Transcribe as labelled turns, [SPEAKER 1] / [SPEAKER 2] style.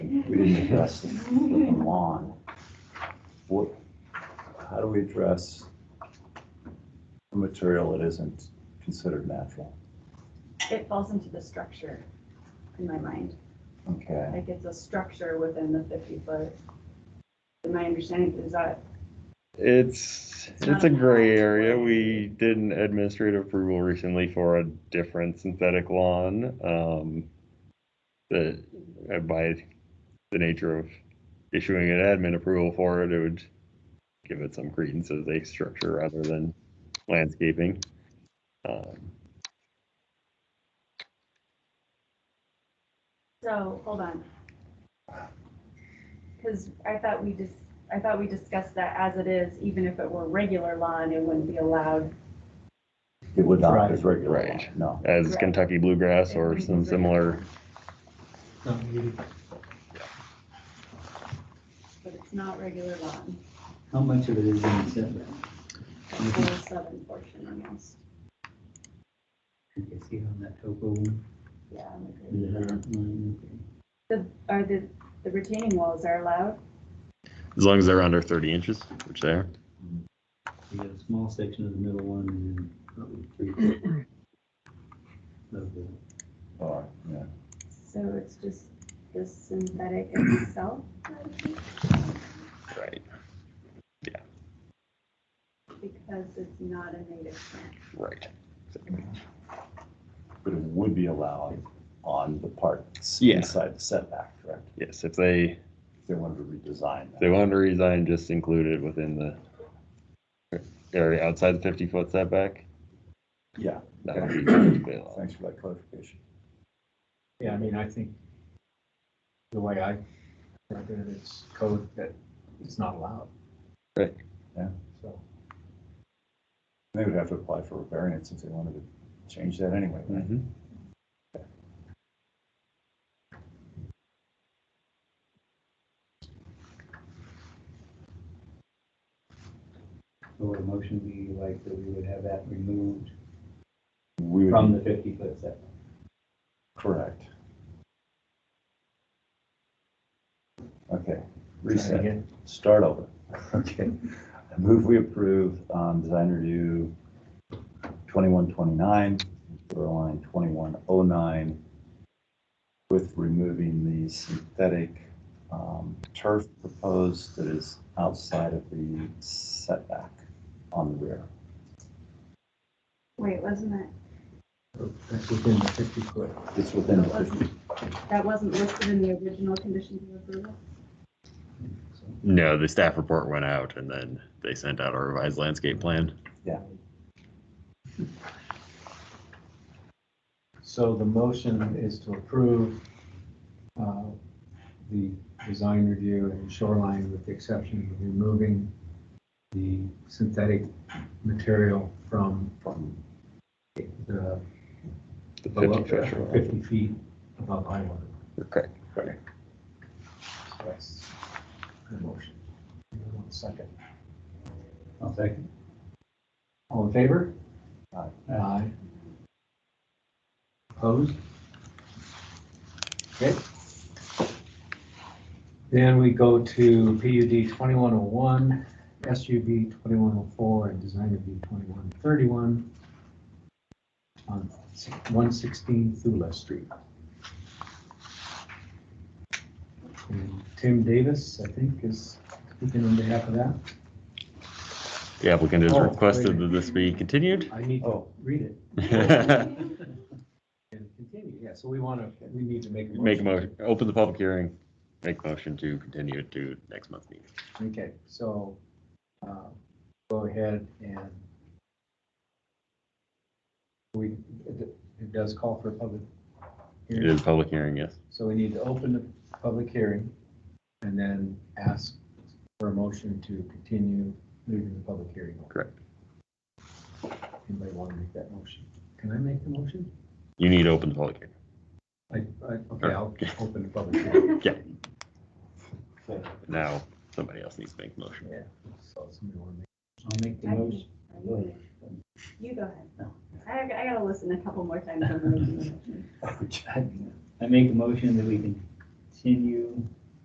[SPEAKER 1] we didn't address the the lawn. What, how do we address the material that isn't considered natural?
[SPEAKER 2] It falls into the structure in my mind.
[SPEAKER 1] Okay,
[SPEAKER 2] Like it's a structure within the fifty foot. And my understanding is that
[SPEAKER 3] It's, it's a gray area. We did an administrative approval recently for a different synthetic lawn. Um, that uh, by the nature of issuing an admin approval for it, it would give it some credence as a structure rather than landscaping. Um,
[SPEAKER 2] So, hold on. Because I thought we just, I thought we discussed that as it is, even if it were regular lawn, it wouldn't be allowed.
[SPEAKER 1] it would not be regular lawn,
[SPEAKER 3] Right.
[SPEAKER 1] no.
[SPEAKER 3] As Kentucky bluegrass or some similar,
[SPEAKER 4] Not needed.
[SPEAKER 2] But it's not regular lawn,
[SPEAKER 4] How much of it is in the setback?
[SPEAKER 2] the whole southern portion almost,
[SPEAKER 4] You can see on that topo one,
[SPEAKER 2] yeah. on the grid.
[SPEAKER 4] the dotted line,
[SPEAKER 2] The, are the, the retaining walls are allowed?
[SPEAKER 3] as long as they're under thirty inches, which they are.
[SPEAKER 4] okay. You got a small section of the middle one and then probably three. quarters Of the,
[SPEAKER 1] Or, yeah.
[SPEAKER 2] So it's just the synthetic in itself?
[SPEAKER 3] Right.
[SPEAKER 2] Because it's not a native plant.
[SPEAKER 3] Right.
[SPEAKER 1] But it would be allowed on the parts
[SPEAKER 3] Yeah.
[SPEAKER 1] inside the setback, correct?
[SPEAKER 3] Yes, if they
[SPEAKER 1] If they wanted to redesign
[SPEAKER 3] If
[SPEAKER 1] that.
[SPEAKER 3] they wanted to resign, just include it within the area outside the fifty foot setback.
[SPEAKER 1] Yeah,
[SPEAKER 3] That would be perfectly allowed.
[SPEAKER 1] thanks for that clarification.
[SPEAKER 5] Yeah, I mean, I think the way I read it, it's code that it's not allowed.
[SPEAKER 3] Right.
[SPEAKER 1] Yeah.
[SPEAKER 5] So,
[SPEAKER 1] They would have to apply for a variance if they wanted to change that anyway, right?
[SPEAKER 3] Mhm.
[SPEAKER 4] so would a motion be like that we would have that removed
[SPEAKER 3] Mm-hmm.
[SPEAKER 1] We would
[SPEAKER 4] from
[SPEAKER 1] be-
[SPEAKER 4] the fifty foot setback?
[SPEAKER 1] Correct. Okay,
[SPEAKER 5] try it
[SPEAKER 1] reset,
[SPEAKER 5] again.
[SPEAKER 1] start over. Okay. I move we approve um, design review 2129, line 2109, with removing the synthetic um, turf proposed that is outside of the setback on the rear.
[SPEAKER 2] Wait, wasn't that,
[SPEAKER 5] Oh, That's within the fifty foot.
[SPEAKER 1] It's within the 50.
[SPEAKER 2] wasn't, that wasn't listed in the original conditions of approval?
[SPEAKER 4] So,
[SPEAKER 3] No, the staff report went out and then they sent out a revised landscape plan.
[SPEAKER 5] So the motion is to approve uh, the design review and shoreline with the exception of removing the synthetic material from
[SPEAKER 1] from
[SPEAKER 5] the
[SPEAKER 3] The fifty
[SPEAKER 5] below,
[SPEAKER 3] foot. shoreline.
[SPEAKER 5] fifty feet above high water.
[SPEAKER 3] Correct.
[SPEAKER 5] So that's the motion. One second.
[SPEAKER 4] I'll second.
[SPEAKER 5] All in favor?
[SPEAKER 1] Aye.
[SPEAKER 5] Aye. Opposed? Okay. Then we go to PUD twenty-one oh one, SUB twenty-one oh four, and Design Review twenty-one thirty-one on one sixteen Thule Street. And Tim Davis, I think, is speaking on behalf of that.
[SPEAKER 3] The applicant has
[SPEAKER 5] Oh,
[SPEAKER 3] requested
[SPEAKER 5] wait.
[SPEAKER 3] that this be continued.
[SPEAKER 5] I need to
[SPEAKER 1] Oh.
[SPEAKER 5] read it.
[SPEAKER 3] Make
[SPEAKER 5] And continue, yeah, so we want to, we need to make a motion.
[SPEAKER 3] a motion, open the public hearing, make a motion to continue it to next month's meeting.
[SPEAKER 5] Okay, so, uh, go ahead and we, it it does call for a public
[SPEAKER 3] It
[SPEAKER 5] hearing,
[SPEAKER 3] is a public hearing, yes.
[SPEAKER 5] so we need to open the public hearing and then ask for a motion to continue leaving the public hearing. open.
[SPEAKER 3] Correct.
[SPEAKER 5] Anybody want to make that motion? Can I make the motion?
[SPEAKER 3] You need to open the public hearing.
[SPEAKER 5] I, I,
[SPEAKER 3] Uh,
[SPEAKER 5] okay, I'll open the public hearing.
[SPEAKER 3] Now, somebody else needs to make a motion.
[SPEAKER 5] Yeah, so somebody want to
[SPEAKER 4] I'll
[SPEAKER 5] make,
[SPEAKER 4] make the
[SPEAKER 2] I can-
[SPEAKER 4] motion.
[SPEAKER 2] I can- You go ahead. I, I gotta listen a couple more times. on the original motion.
[SPEAKER 4] I I make a motion that we continue